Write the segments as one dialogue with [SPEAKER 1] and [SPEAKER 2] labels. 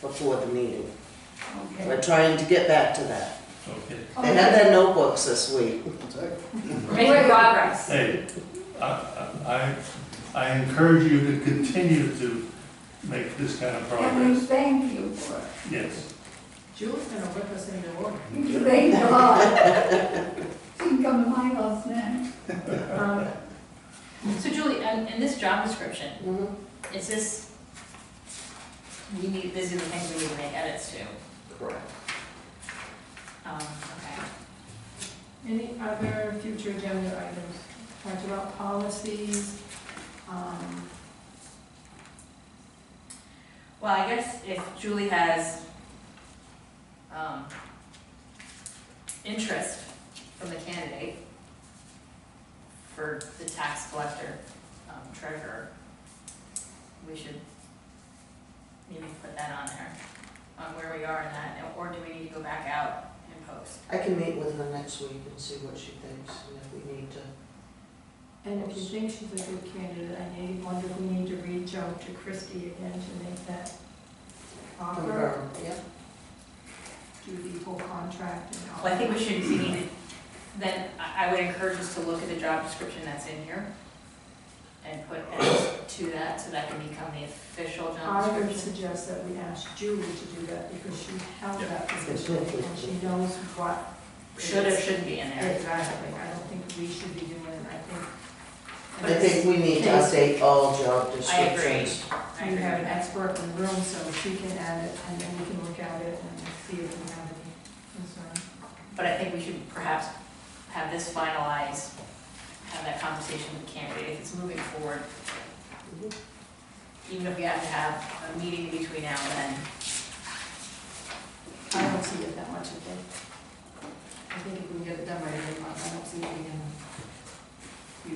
[SPEAKER 1] before the meeting.
[SPEAKER 2] Okay.
[SPEAKER 1] We're trying to get back to that.
[SPEAKER 3] Okay,
[SPEAKER 2] Oh,
[SPEAKER 1] They had their notebooks this week.
[SPEAKER 4] Making progress.
[SPEAKER 3] hey, I, I, I encourage you to continue to make this kind of
[SPEAKER 2] And we
[SPEAKER 3] progress,
[SPEAKER 2] thank you for it.
[SPEAKER 3] yes.
[SPEAKER 5] Jule's gonna whip us into order.
[SPEAKER 2] Thank God. She can come to my house now.
[SPEAKER 5] Um,
[SPEAKER 4] So Julie, in, in this job description,
[SPEAKER 1] Mhm.
[SPEAKER 4] is this, we need, these are the things we need to make edits to.
[SPEAKER 1] Correct.
[SPEAKER 4] Um, okay.
[SPEAKER 5] Any other future agenda items? Talked about policies, um,
[SPEAKER 4] Well, I guess if Julie has, um, interest from the candidate for the tax collector, um, treasurer, we should maybe put that on there, on where we are in that, or do we need to go back out and post?
[SPEAKER 1] I can meet with her next week and see what she thinks and if we need to.
[SPEAKER 5] and if you think she's a good candidate, I need, wonder if we need to reach out to Christie again to make that offer,
[SPEAKER 1] confirm. Yep.
[SPEAKER 5] do the whole contract and all.
[SPEAKER 4] Well, I think we should, we need to, then I, I would encourage us to look at the job description that's in here and put edits to that, so that can become the official job
[SPEAKER 5] I would
[SPEAKER 4] description.
[SPEAKER 5] suggest that we ask Julie to do that because she held that position and she knows what.
[SPEAKER 4] Should or shouldn't be in there.
[SPEAKER 5] Exactly, I don't think we should be doing it, I think
[SPEAKER 4] But
[SPEAKER 1] I
[SPEAKER 4] it's-
[SPEAKER 1] think we need to
[SPEAKER 5] it's-
[SPEAKER 1] update all job
[SPEAKER 4] I agree.
[SPEAKER 1] descriptions.
[SPEAKER 4] I
[SPEAKER 5] You
[SPEAKER 4] agree
[SPEAKER 5] have
[SPEAKER 4] with
[SPEAKER 5] an
[SPEAKER 4] that.
[SPEAKER 5] expert in the room, so she can add it, and then we can look at it and see if we have any concern.
[SPEAKER 4] But I think we should perhaps have this finalized, have that conversation with the candidate, if it's moving forward.
[SPEAKER 1] Mhm.
[SPEAKER 4] Even if we have to have a meeting between now and then.
[SPEAKER 5] I don't see it that much, I think. I think if we can get it done by the end of the month, I don't see it being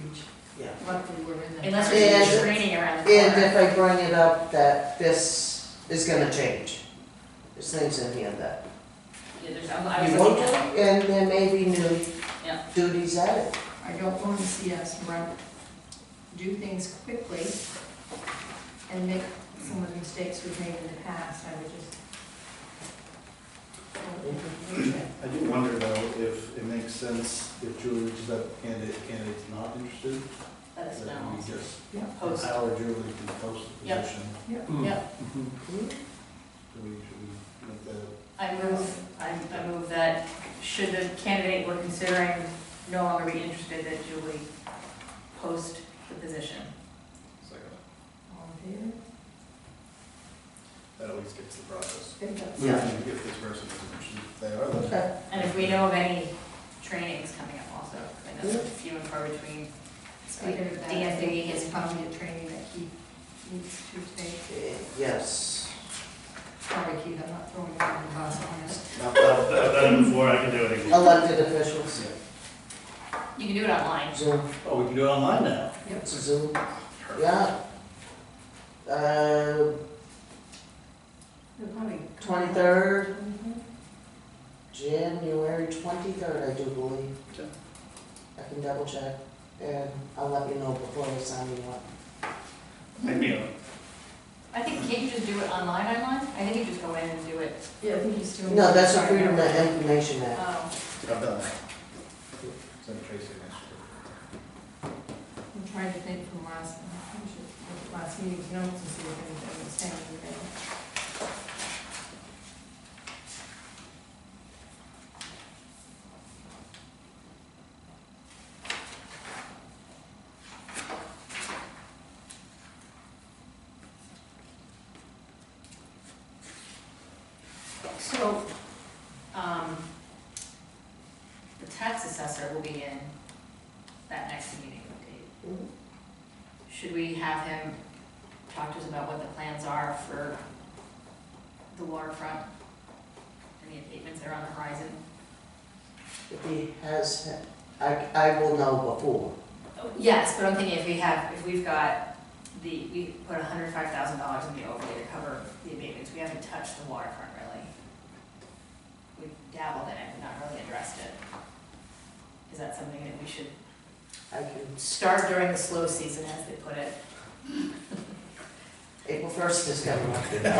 [SPEAKER 5] huge.
[SPEAKER 1] Yeah.
[SPEAKER 5] Luckily, we're in the.
[SPEAKER 4] Unless
[SPEAKER 1] Yeah.
[SPEAKER 4] there's training around the
[SPEAKER 1] And if
[SPEAKER 4] corner.
[SPEAKER 1] I bring it up, that this is gonna change. There's things in here that
[SPEAKER 4] Yeah, there's- I was
[SPEAKER 1] you
[SPEAKER 4] looking
[SPEAKER 1] won't,
[SPEAKER 4] at-
[SPEAKER 1] and there may be new
[SPEAKER 4] Yeah.
[SPEAKER 1] duties added.
[SPEAKER 5] I don't want to see us run, do things quickly and make some of the mistakes we've made in the past, I would just.
[SPEAKER 6] I do wonder though if it makes sense if Julie reaches out to candidate, candidate's not interested,
[SPEAKER 4] Let us
[SPEAKER 6] that
[SPEAKER 4] know.
[SPEAKER 6] we just
[SPEAKER 5] Yeah.
[SPEAKER 4] Post.
[SPEAKER 6] empower Julie to post the
[SPEAKER 4] Yep.
[SPEAKER 6] position.
[SPEAKER 4] Yep.
[SPEAKER 1] Mm-hmm.
[SPEAKER 6] Do we, should we make that?
[SPEAKER 4] I move, I I move that should the candidate we're considering no longer be interested, that Julie post the position.
[SPEAKER 5] All in favor?
[SPEAKER 6] That at least gets the process.
[SPEAKER 5] Think that's-
[SPEAKER 1] Yeah.
[SPEAKER 6] If this person isn't interested, if they are, then
[SPEAKER 1] Okay.
[SPEAKER 4] And if we know of any trainings coming up also, I know there's few and far between.
[SPEAKER 5] Speaking of that,
[SPEAKER 4] Dan Diggy
[SPEAKER 5] is
[SPEAKER 4] has
[SPEAKER 5] probably a training that he needs to take.
[SPEAKER 1] Yes.
[SPEAKER 5] Sorry, Keith, I'm not throwing you under the bus on this.
[SPEAKER 6] not that.
[SPEAKER 3] I've done it before, I can do it again.
[SPEAKER 1] Elected officials,
[SPEAKER 4] You can do it online.
[SPEAKER 1] Zoom,
[SPEAKER 6] Oh, we can do it online now.
[SPEAKER 5] Yep.
[SPEAKER 1] Zoom, yeah. Uh,
[SPEAKER 5] They're probably.
[SPEAKER 1] twenty-third,
[SPEAKER 5] Mhm.
[SPEAKER 1] January twenty-third, I do believe.
[SPEAKER 6] Okay.
[SPEAKER 1] I can double check, and I'll let you know before I sign you up.
[SPEAKER 3] Maybe, uh,
[SPEAKER 4] I think, can't you just do it online, online? I think you just go in and do it.
[SPEAKER 5] Yeah, I think he's doing.
[SPEAKER 1] No, that's the Freedom of Information Act.
[SPEAKER 4] Oh,
[SPEAKER 6] I've done that. Send Tracy an extra.
[SPEAKER 5] I'm trying to think from last, I should look at last meeting's notes and see if anything was saying in there.
[SPEAKER 4] so, um, the tax assessor will be in that next meeting date.
[SPEAKER 1] Mhm.
[SPEAKER 4] Should we have him talk to us about what the plans are for the waterfront? Any abatements that are on the horizon?
[SPEAKER 1] If he has, I, I will know before.
[SPEAKER 4] Yes, but I'm thinking if we have, if we've got the, we put hundred five thousand dollars in the overlay to cover the abatements, we haven't touched the waterfront really. We dabbled in it, but not really addressed it. Is that something that we should
[SPEAKER 1] I can,
[SPEAKER 4] start during the slow season, as they put it?
[SPEAKER 1] April first is coming up.